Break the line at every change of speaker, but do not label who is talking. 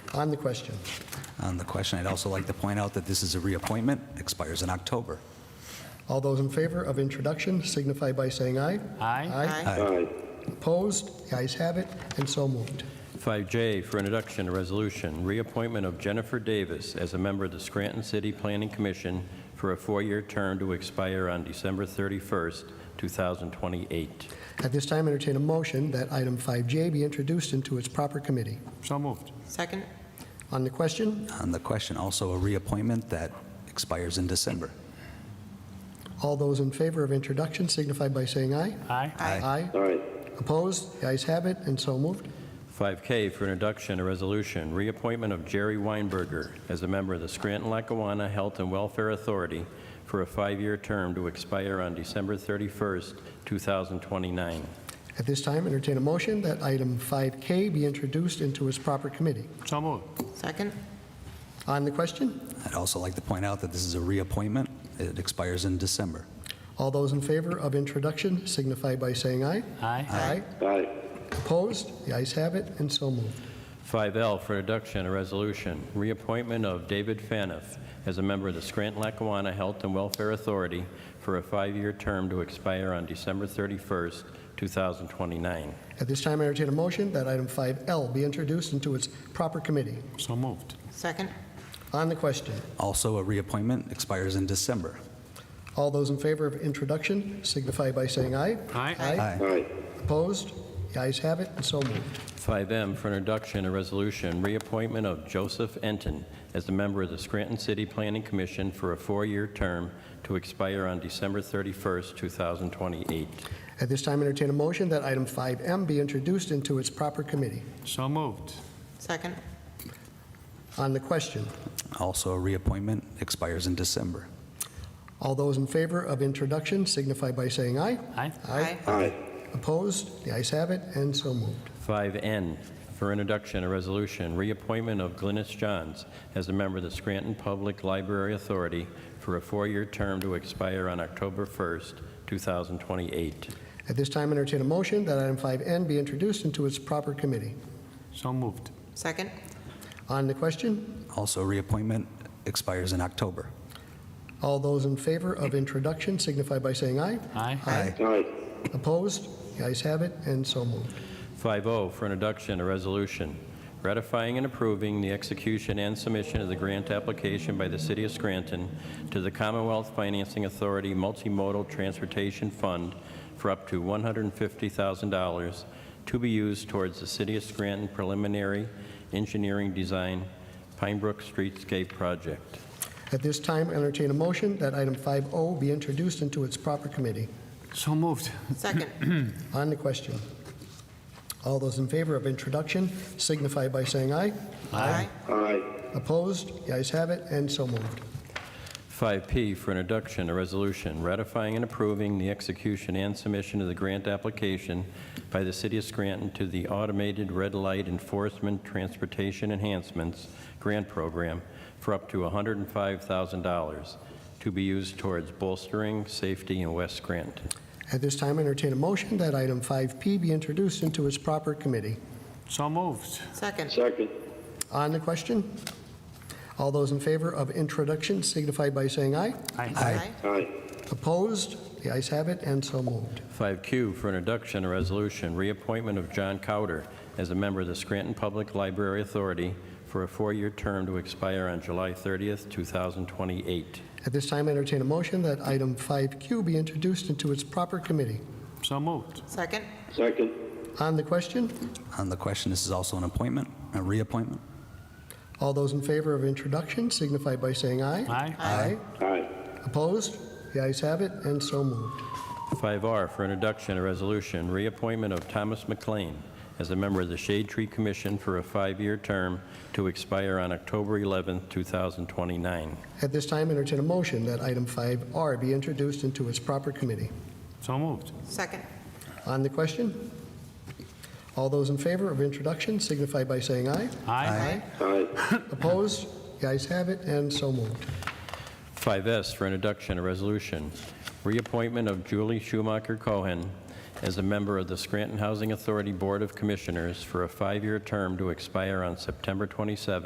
On the question.
On the question, I'd also like to point out that this is a reappointment, expires in October.
All those in favor of introduction signify by saying aye.
Aye.
Aye.
Aye.
Opposed? The ayes have it, and so moved.
5J for introduction, a resolution, reappointment of Jennifer Davis as a member of the Scranton City Planning Commission for a four-year term to expire on December 31st, 2028.
At this time, entertain a motion that item 5J be introduced into its proper committee.
So moved.
Second?
On the question,
On the question, also a reappointment that expires in December.
all those in favor of introduction signify by saying aye.
Aye.
Aye.
Aye.
Opposed? The ayes have it, and so moved.
5K for introduction, a resolution, reappointment of Jerry Weinberger as a member of the Scranton-Lackawanna Health and Welfare Authority for a five-year term to expire on December 31st, 2029.
At this time, entertain a motion that item 5K be introduced into its proper committee.
So moved.
Second?
On the question,
I'd also like to point out that this is a reappointment, it expires in December.
all those in favor of introduction signify by saying aye.
Aye.
Aye.
Aye.
Opposed? The ayes have it, and so moved.
5L for introduction, a resolution, reappointment of David Faniff as a member of the Scranton-Lackawanna Health and Welfare Authority for a five-year term to expire on December 31st, 2029.
At this time, entertain a motion that item 5L be introduced into its proper committee.
So moved.
Second?
On the question,
Also a reappointment, expires in December.
all those in favor of introduction signify by saying aye.
Aye.
Aye.
Aye.
Opposed? The ayes have it, and so moved.
5M for introduction, a resolution, reappointment of Joseph Enton as a member of the Scranton City Planning Commission for a four-year term to expire on December 31st, 2028.
At this time, entertain a motion that item 5M be introduced into its proper committee.
So moved.
Second?
On the question,
Also a reappointment, expires in December.
all those in favor of introduction signify by saying aye.
Aye.
Aye.
Opposed? The ayes have it, and so moved.
5N for introduction, a resolution, reappointment of Glynis Johns as a member of the Scranton Public Library Authority for a four-year term to expire on October 1st, 2028.
At this time, entertain a motion that item 5N be introduced into its proper committee.
So moved.
Second?
On the question,
Also a reappointment, expires in October.
All those in favor of introduction signify by saying aye.
Aye.
Aye.
Aye.
Opposed? The ayes have it, and so moved.
5-0 for introduction, a resolution ratifying and approving the execution and submission of the grant application by the City of Scranton to the Commonwealth Financing Authority Multimodal Transportation Fund for up to $150,000 to be used towards the City of Scranton preliminary engineering design Pine Brook Streetscape Project.
At this time, entertain a motion that item 5O be introduced into its proper committee.
So moved.
Second?
On the question, all those in favor of introduction signify by saying aye.
Aye.
Aye.
Opposed? The ayes have it, and so moved.
5P for introduction, a resolution ratifying and approving the execution and submission of the grant application by the City of Scranton to the Automated Red Light Enforcement Transportation Enhancements Grant Program for up to $105,000 to be used towards bolstering safety in West Scranton.
At this time, entertain a motion that item 5P be introduced into its proper committee.
So moved.
Second?
Second.
On the question, all those in favor of introduction signify by saying aye.
Aye.
Aye.
Opposed? The ayes have it, and so moved.
5Q for introduction, a resolution, reappointment of John Cowder as a member of the Scranton Public Library Authority for a four-year term to expire on July 30th, 2028.
At this time, entertain a motion that item 5Q be introduced into its proper committee.
So moved.
Second?
Second.
On the question,
On the question, this is also an appointment, a reappointment.
all those in favor of introduction signify by saying aye.
Aye.
Aye.
Aye.
Opposed? The ayes have it, and so moved.
5R for introduction, a resolution, reappointment of Thomas McLean as a member of the Shade Tree Commission for a five-year term to expire on October 11th, 2029.
At this time, entertain a motion that item 5R be introduced into its proper committee.
So moved.
Second?
On the question, all those in favor of introduction signify by saying aye.
Aye.
Aye.
Opposed? The ayes have it, and so moved.
5S for introduction, a resolution, reappointment of Julie Schumacher Cohen as a member of the Scranton Housing Authority Board of Commissioners for a five-year term to expire on September 27th,